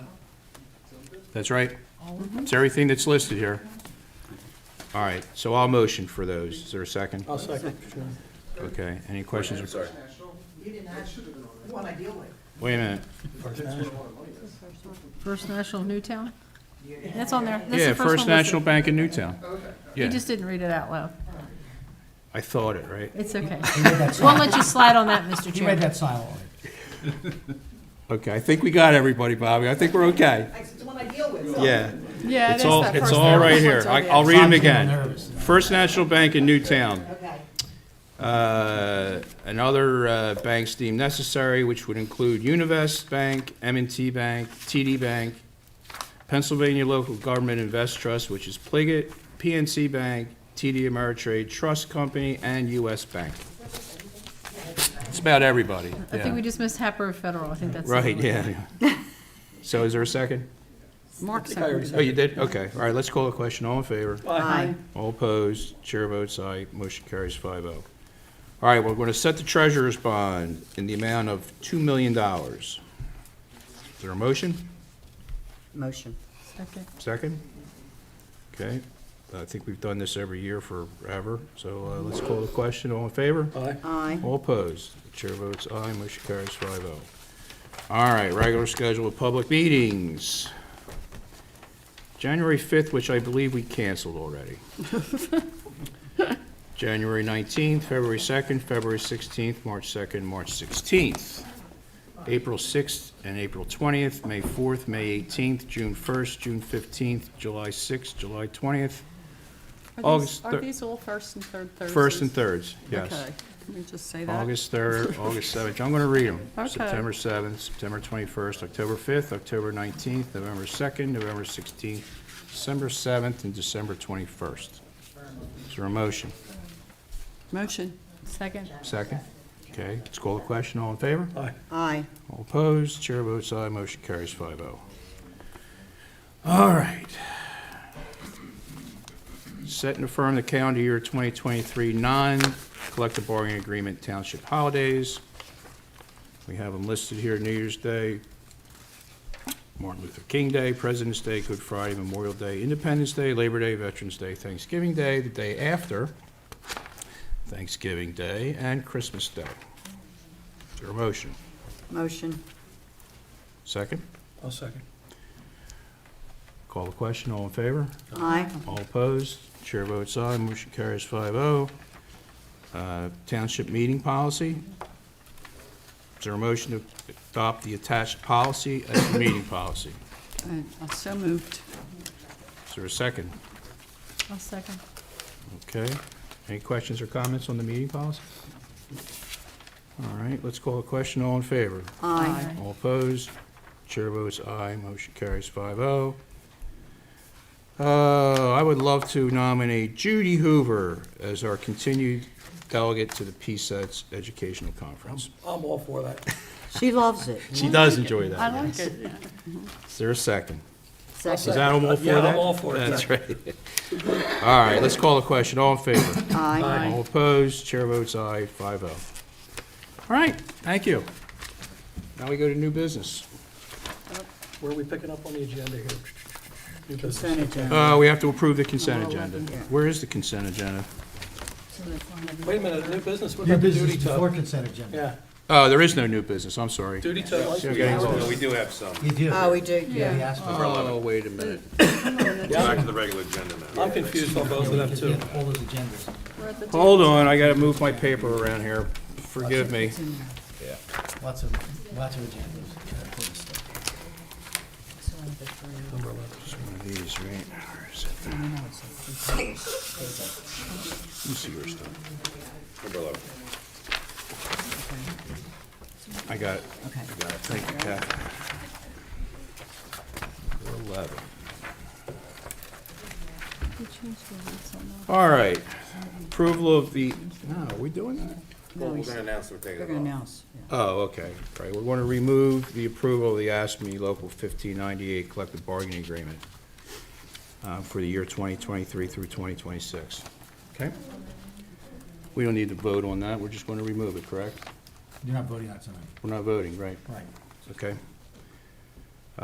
That's right. It's everything that's listed here. All right, so I'll motion for those. Is there a second? I'll second. Okay, any questions? or- Sorry. Wait a minute. First National Newtown? That's on there. That's Yeah, the First one listed. National Bank in Newtown. You Yeah, just didn't read it out loud. I thought it, right? It's okay. We'll let you slide on that, Mr. You Chairman. made that silent. Okay, I think we got everybody, Bobby. I think we're okay. It's the one I deal with. Yeah. Yeah, it It's is all, that it's first Oh, all National. right here. It's on I- there. I'll read them I'm feeling again. nervous. First National Bank in Newtown. Okay. Uh, and other uh, banks deemed necessary, which would include Univest Bank, m and t Bank, TD Bank, Pennsylvania Local Government Invest Trust, which is Pliget, PNC Bank, TD Ameritrade Trust Company, and US Bank. It's about everybody, I think we yeah. just missed Happer Federal. I think that's. the Right, one. yeah. yeah. So is there a second? Mark seconded. Oh, you did? Okay, all right, let's call the question. All in favor? Aye. All opposed, chair votes aye, motion carries 5-0. All right, we're going to set the treasurer's bond in the amount of $2 million. Is there a motion? Motion. Second. Second? Okay, I think we've done this every year forever, so uh, let's call the question. All in favor? Aye. All opposed, chair votes aye, motion carries 5-0. All right, regular schedule of public meetings. January 5th, which I believe we canceled already. January 19th, February 2nd, February 16th, March 2nd, March 16th, April 6th and April 20th, May 4th, May 18th, June 1st, June 15th, July 6th, July 20th, August Are thir- these all first and third Thursdays? 1st and 3rds, yes. Okay, let me just say that. August 3rd, August 7th, I'm going to read them. Okay. September 7th, September 21st, October 5th, October 19th, November 2nd, November 16th, December 7th, and December 21st. Is there a motion? Motion. Second. Second? Okay, let's call the question, all in favor? Aye. All opposed, chair votes aye, motion carries 5-0. All right. Set and affirm the calendar year 2023 non-collective bargaining agreement township holidays. We have them listed here, New Year's Day, Martin Luther King Day, President's Day, Good Friday, Memorial Day, Independence Day, Labor Day, Veterans Day, Thanksgiving Day, the day after Thanksgiving Day, and Christmas Day. Is there a motion? Motion. Second? I'll second. Call the question, all in favor? Aye. All opposed? Chair votes aye, motion carries 5-0. Uh, Township meeting policy. Is there a motion to adopt the attached policy as the meeting policy? I I Uh, so moved. Is there a second? I'll second. Okay. Any questions or comments on the meeting policy? All right, let's call the question, all in favor? Aye. Aye. All opposed? Chair votes aye, motion carries 5-0. Uh, I would love to nominate Judy Hoover as our continued delegate to the PSETS Educational Conference. I'm all for that. She loves it. She does enjoy I that. like it, yeah. Is there a second? Is Second. that all for that? Yeah, I'm all for it, yeah. That's right. All right, let's call the question. All in favor? Aye. All opposed? Chair votes aye, 5-0. All right, thank you. Now we go to new business. Where are we picking up on the agenda here? New business. Consent agenda. Uh, we have to approve the consent agenda. Where is the consent agenda? Wait a minute, new business, what about the duty Before tub? consent agenda. Yeah, Oh, there is no new business, I'm sorry. duty tub. Okay. We do have some. You do. Oh, we do. Yeah, we asked for it. Oh, wait a minute. Back to the regular agenda now. I'm confused on both of them Because we too. have all those agendas. We're at the Hold on, I gotta move my paper around here. Forgive me. Lots of, lots of agendas. Important stuff. It's one of these, right? Where is it? Let me see your stuff. I got it. Okay. I got it. Thank you, Kath. Eleven. All right. Approval of the, no, are we doing that? No, We're we- gonna announce we're taking We're it gonna off. announce. yeah. Oh, okay. Right, we're going to remove the approval of the ASME Local 1598 Collective Bargaining Agreement uh, for the year 2023 through 2026. Okay? We don't need to vote on that, we're just going to remove it, correct? You're not voting on it tonight. We're not voting, right? Right. Okay.